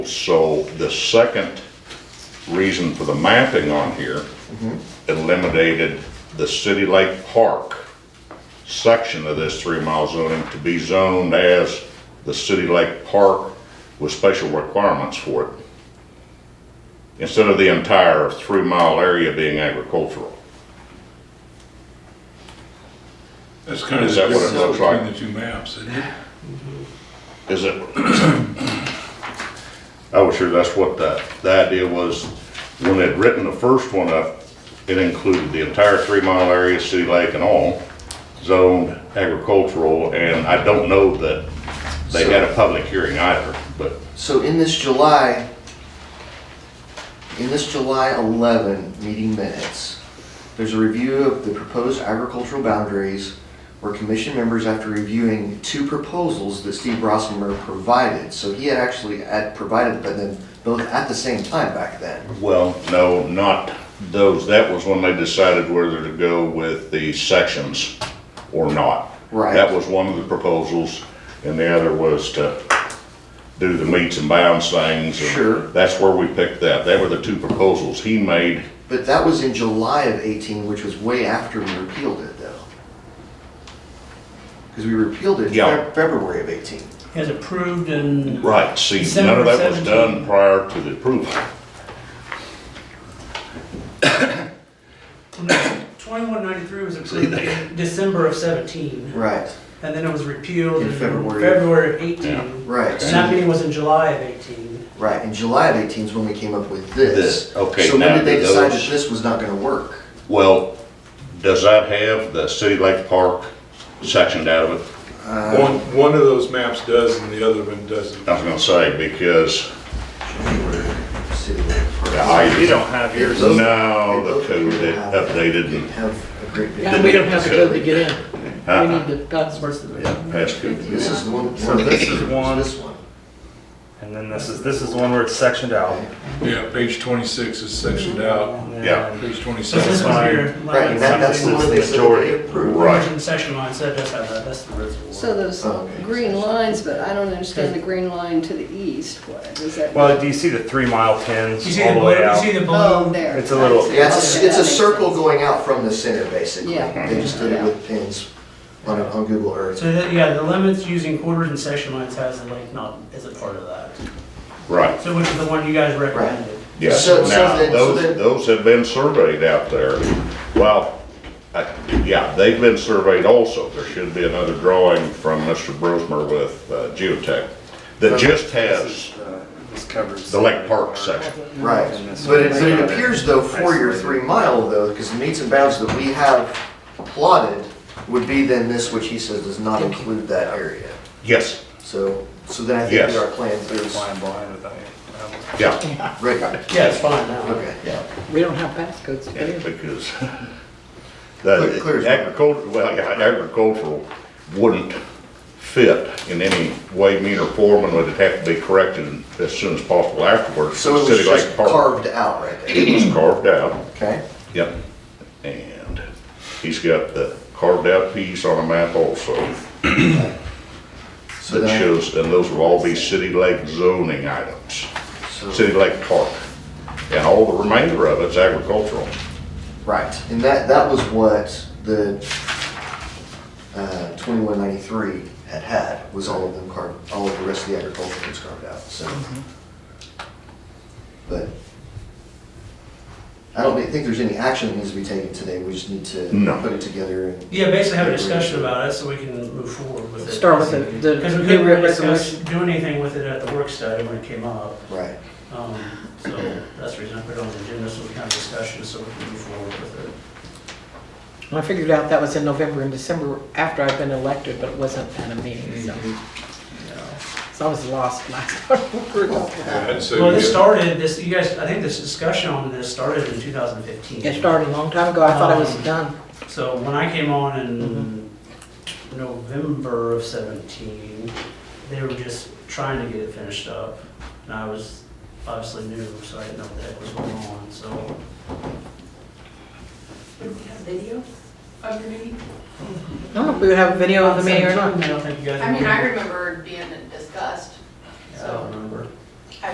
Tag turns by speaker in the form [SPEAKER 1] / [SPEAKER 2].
[SPEAKER 1] So the second reason for the mapping on here eliminated the City Lake Park section of this three mile zoning to be zoned as the City Lake Park with special requirements for it. Instead of the entire three mile area being agricultural.
[SPEAKER 2] That's kind of.
[SPEAKER 1] Is that
[SPEAKER 2] the
[SPEAKER 1] what it looks like?
[SPEAKER 2] Between the two maps, isn't it?
[SPEAKER 1] Is it? I was sure that's what the, the idea was. When they'd written the first one up, it included the entire three mile area, city lake and all, zoned agricultural, and I don't know that they had a public hearing either, but
[SPEAKER 3] So in this July, in this July 11 meeting minutes, there's a review of the proposed agricultural boundaries where commission members, after reviewing two proposals that Steve Rossmer provided, so he had actually had provided them both at the same time back then.
[SPEAKER 1] Well, no, not those. That was when they decided whether to go with the sections or not.
[SPEAKER 3] Right.
[SPEAKER 1] That was one of the proposals, and the other was to do the meets and bounds things. and
[SPEAKER 3] Sure.
[SPEAKER 1] That's where we picked that. They were the two proposals he made.
[SPEAKER 3] But that was in July of 18, which was way after we repealed it though. Because we repealed it
[SPEAKER 1] Yeah.
[SPEAKER 3] Feb- February of 18.
[SPEAKER 4] has approved and
[SPEAKER 1] Right, see, none of that was
[SPEAKER 4] December
[SPEAKER 1] done
[SPEAKER 4] 17.
[SPEAKER 1] prior to the approval.
[SPEAKER 4] 2193 was approved in December of 17,
[SPEAKER 3] Right,
[SPEAKER 4] and then it was repealed
[SPEAKER 3] In
[SPEAKER 4] in
[SPEAKER 3] February.
[SPEAKER 4] February of
[SPEAKER 1] Yeah.
[SPEAKER 4] 18.
[SPEAKER 3] right.
[SPEAKER 4] And that meeting was in July of 18.
[SPEAKER 3] Right, in July of 18 is when we came up with this.
[SPEAKER 1] This, okay,
[SPEAKER 3] So when
[SPEAKER 1] now
[SPEAKER 3] did they
[SPEAKER 1] do
[SPEAKER 3] decide that
[SPEAKER 1] those-
[SPEAKER 3] this was not gonna work?
[SPEAKER 1] Well, does that have the City Lake Park sectioned out of it?
[SPEAKER 2] One, one of those maps does and the other one doesn't.
[SPEAKER 1] I was gonna say, because
[SPEAKER 3] City Lake Park.
[SPEAKER 1] I, you don't
[SPEAKER 5] have yours.
[SPEAKER 3] Those-
[SPEAKER 1] No,
[SPEAKER 3] those
[SPEAKER 1] the code
[SPEAKER 3] people
[SPEAKER 1] it
[SPEAKER 3] have-
[SPEAKER 1] updated
[SPEAKER 3] didn't
[SPEAKER 1] and
[SPEAKER 3] Have a great
[SPEAKER 5] And
[SPEAKER 3] big.
[SPEAKER 5] we don't have to go to get in. We
[SPEAKER 1] uh-uh,
[SPEAKER 5] need the passwords.
[SPEAKER 1] passed code.
[SPEAKER 3] This is the one.
[SPEAKER 6] So this is one-
[SPEAKER 3] This one.
[SPEAKER 6] And then this is, this is the one where it's sectioned out.
[SPEAKER 2] Yeah, page twenty-six is sectioned out,
[SPEAKER 6] And then
[SPEAKER 1] Yeah.
[SPEAKER 2] page
[SPEAKER 4] This is
[SPEAKER 2] twenty-seven.
[SPEAKER 6] fine.
[SPEAKER 4] where
[SPEAKER 3] Right, and that- that's the one they said that
[SPEAKER 1] Majority.
[SPEAKER 3] they approved.
[SPEAKER 1] Right.
[SPEAKER 4] Origin section line, so it does have that, that's the reservoir.
[SPEAKER 5] So those
[SPEAKER 6] Oh,
[SPEAKER 3] Okay.
[SPEAKER 5] green lines, but I don't understand the green line to the east. What is that?
[SPEAKER 6] Well, do you see the three mile pins
[SPEAKER 4] You see the
[SPEAKER 6] all the
[SPEAKER 4] blue,
[SPEAKER 6] way
[SPEAKER 4] you
[SPEAKER 6] out?
[SPEAKER 4] see the
[SPEAKER 5] Oh,
[SPEAKER 4] blue?
[SPEAKER 5] there.
[SPEAKER 6] It's a little-
[SPEAKER 5] Okay,
[SPEAKER 3] Yeah, it's,
[SPEAKER 5] that
[SPEAKER 3] a- it's a
[SPEAKER 5] makes
[SPEAKER 3] circle
[SPEAKER 5] sense.
[SPEAKER 3] going out from the center, basically.
[SPEAKER 5] Yeah.
[SPEAKER 3] They just did it
[SPEAKER 5] Yeah.
[SPEAKER 3] with pins on, on Google Earth.
[SPEAKER 4] So that, yeah, the limits using quarters and section lines has the lake not, is a part of that.
[SPEAKER 1] Right,
[SPEAKER 4] So which is the one you guys recommended?
[SPEAKER 1] yes.
[SPEAKER 3] So- so
[SPEAKER 1] Now,
[SPEAKER 3] then- so
[SPEAKER 1] those,
[SPEAKER 3] then-
[SPEAKER 1] those have been surveyed out there. Well, I- yeah, they've been surveyed also. There should be another drawing from Mr. Brosmer with uh, Geotech that just has
[SPEAKER 4] uh,
[SPEAKER 6] This covers.
[SPEAKER 1] the Lake Park section.
[SPEAKER 3] Right,
[SPEAKER 6] And this
[SPEAKER 3] but it,
[SPEAKER 6] one
[SPEAKER 3] but it
[SPEAKER 6] is not
[SPEAKER 3] appears though for your
[SPEAKER 6] isolated.
[SPEAKER 3] three mile though, because the meets and bounds that we have plotted would be then this, which he says does not include that area.
[SPEAKER 1] Yes,
[SPEAKER 3] So, so then I think
[SPEAKER 1] Yes.
[SPEAKER 3] that our plan is,
[SPEAKER 6] Blind, blind without you.
[SPEAKER 1] yeah,
[SPEAKER 3] right,
[SPEAKER 4] Yeah, it's fine now.
[SPEAKER 3] okay, yeah.
[SPEAKER 5] We don't have passcodes to get
[SPEAKER 1] yeah,
[SPEAKER 5] in.
[SPEAKER 1] because
[SPEAKER 3] Clear- clear as
[SPEAKER 1] the
[SPEAKER 3] mud.
[SPEAKER 1] agricultural, well, yeah, agricultural wouldn't fit in any way, mean or form, and would have to be corrected as soon as possible afterwards.
[SPEAKER 3] So it was
[SPEAKER 1] City Lake
[SPEAKER 3] just
[SPEAKER 1] Park.
[SPEAKER 3] carved out right there,
[SPEAKER 1] It was carved out.
[SPEAKER 3] okay?
[SPEAKER 1] Yep. And he's got the carved out piece on a map also
[SPEAKER 3] So
[SPEAKER 1] that
[SPEAKER 3] then,
[SPEAKER 1] shows, and those will all be city lake zoning items,
[SPEAKER 3] so,
[SPEAKER 1] city lake park. And all the remainder of it's agricultural.
[SPEAKER 3] right, and that, that was what the, uh, twenty-one ninety-three had had, was all of them carved, all of the rest of the agriculture was carved out, so. But I don't think there's any action that needs to be taken today, we just need to
[SPEAKER 1] No.
[SPEAKER 3] put it together and.
[SPEAKER 4] Yeah, basically have a discussion about it so we can move forward with it.
[SPEAKER 5] Start with the,
[SPEAKER 4] Because
[SPEAKER 5] the
[SPEAKER 4] we
[SPEAKER 5] new
[SPEAKER 4] couldn't really discuss,
[SPEAKER 5] resolution.
[SPEAKER 4] do anything with it at the work study when it came up.
[SPEAKER 3] Right,
[SPEAKER 4] Um, So that's the reason I put it on the agenda, so we can have discussion, so we can move forward with it.
[SPEAKER 5] I figured out that was in November and December after I'd been elected, but it wasn't at a meeting, so. So I was lost last time.
[SPEAKER 2] And so
[SPEAKER 4] Well,
[SPEAKER 2] you get-
[SPEAKER 4] this started, this, you guys, I think this discussion on this started in 2015.
[SPEAKER 5] It started a long time ago. I thought I was
[SPEAKER 4] Um,
[SPEAKER 5] done.
[SPEAKER 4] So when I came on in
[SPEAKER 5] Mm-hmm.
[SPEAKER 4] November of 17, they were just trying to get it finished up. And I was obviously new, so I didn't know what the heck was going on, so.
[SPEAKER 7] Would we have video of your meeting?
[SPEAKER 5] I don't know if we would have a video of the meeting or not.
[SPEAKER 4] I don't think you guys.
[SPEAKER 7] I mean, I
[SPEAKER 4] remember.
[SPEAKER 7] remember it being discussed,
[SPEAKER 4] Yeah, I don't
[SPEAKER 7] so.
[SPEAKER 4] remember.